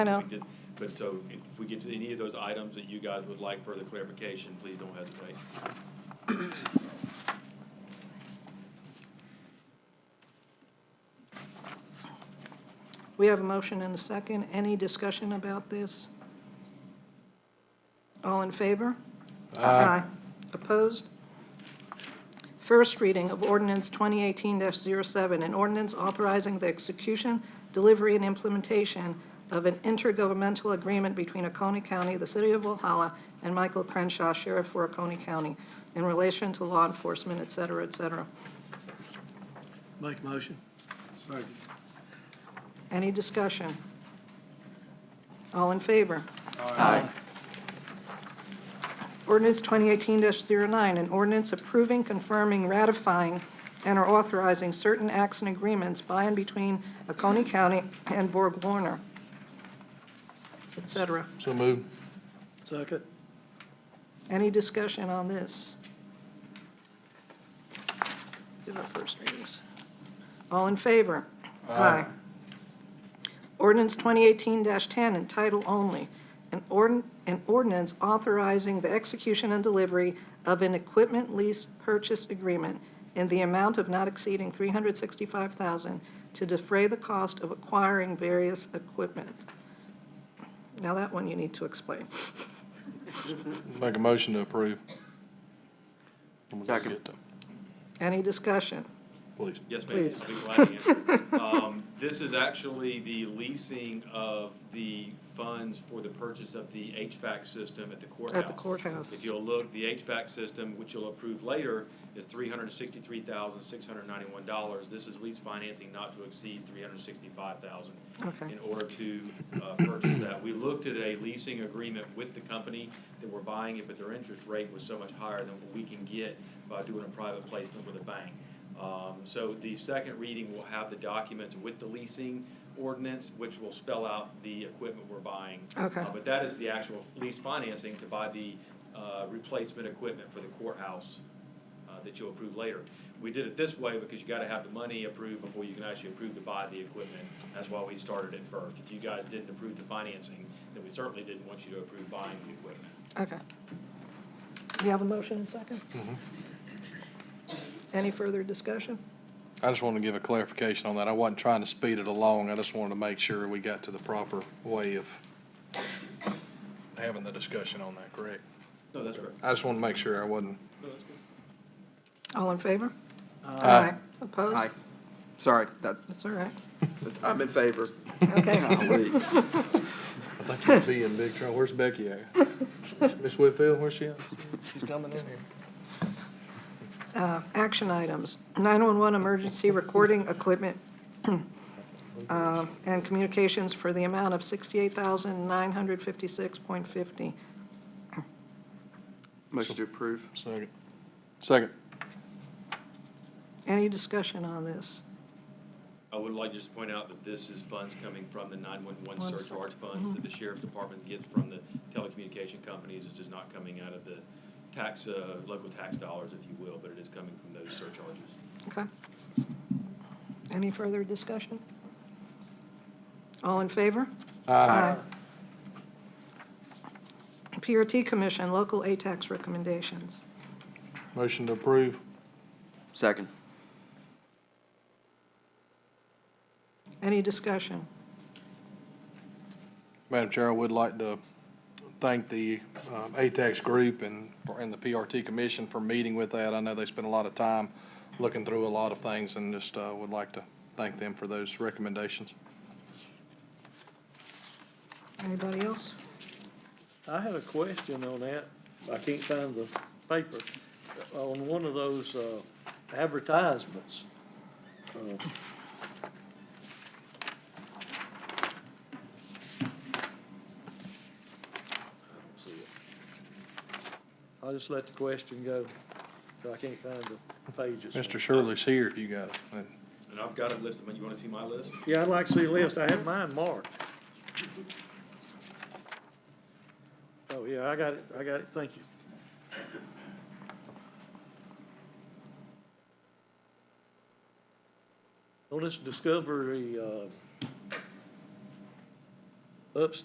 I know. we did- But so if we get to any of those items that you guys would like further clarification, please don't hesitate. We have a motion and a second. Any discussion about this? All in favor? Aye. Opposed? First reading of ordinance 2018-07, an ordinance authorizing the execution, delivery, and implementation of an intergovernmental agreement between Oconee County, the City of Walhalla, and Michael Crenshaw, Sheriff for Oconee County, in relation to law enforcement, et cetera, et cetera. Make a motion. Second. Any discussion? All in favor? Aye. Ordinance 2018-09, an ordinance approving, confirming, ratifying, and or authorizing certain acts and agreements by and between Oconee County and Borg Warner, et cetera. So moved. Second. Any discussion on this? Do our first readings. All in favor? Aye. Ordinance 2018-10 in title only, an ordn- an ordinance authorizing the execution and delivery of an equipment lease purchase agreement in the amount of not exceeding $365,000 to defray the cost of acquiring various equipment. Now, that one you need to explain. Make a motion to approve. And we'll just Second. get to- Any discussion? Please. Yes, ma'am. Please. I'll be glad to answer. Um, This is actually the leasing of the funds for the purchase of the HVAC system at the courthouse. At the courthouse. If you'll look, the HVAC system, which you'll approve later, is three hundred and sixty-three thousand, six hundred and ninety-one dollars. This is lease financing not to exceed three hundred and sixty-five thousand. Okay. In order to, uh, purchase that. We looked at a leasing agreement with the company that we're buying it, but their interest rate was so much higher than what we can get by doing a private placement with a bank. Um, so the second reading will have the documents with the leasing ordinance, which will spell out the equipment we're buying. Okay. Uh, But that is the actual lease financing to buy the uh, replacement equipment for the courthouse uh, that you'll approve later. We did it this way because you gotta have the money approved before you can actually approve to buy the equipment. That's why we started it first. If you guys didn't approve the financing, then we certainly didn't want you to approve buying the equipment. Okay. Do you have a motion and second? Any further discussion? I just want to give a clarification on that. I wasn't trying to speed it along. I just wanted to make sure we got to the proper way of having the discussion on that, correct? No, that's correct. I just want to make sure I wasn't. No, that's good. All in favor? Opposed? Aye. Sorry, that, That's all right. that- I'm in favor. Okay. Golly. I think you'd be in big trouble. Where's Becky at? Miss Whitfield, where's she at? She's coming in here. Uh, Action items. 911 emergency recording equipment uh, and communications for the amount of $68,956.50. Motion to approve. Second. Second. Any discussion on this? I would like to just point out that this is funds coming from the One 911 sec- surcharge funds that the sheriff's department gets from the telecommunication companies. It's just not coming out of the tax, uh, local tax dollars, if you will, but it is coming from those surcharges. Okay. Any further discussion? All in favor? Aye. PRT Commission, local ATAX recommendations. Motion to approve. Second. Any discussion? Madam Chair, I would like to thank the um, ATAX Group and, and the PRT Commission for meeting with that. I know they spent a lot of time looking through a lot of things and just uh, would like to thank them for those recommendations. Anybody else? I had a question on that. I can't find the paper. On one of those uh, advertisements. uh, I don't see it. I'll just let the question go. 'cause I can't find the pages. Mr. Shirley's here if you got it. And And I've got it listed, but you want to see my list? Yeah, I'd like to see a list. I have mine marked. Oh, yeah, I got it. I got it. Thank you. On this Discovery, uh, upstairs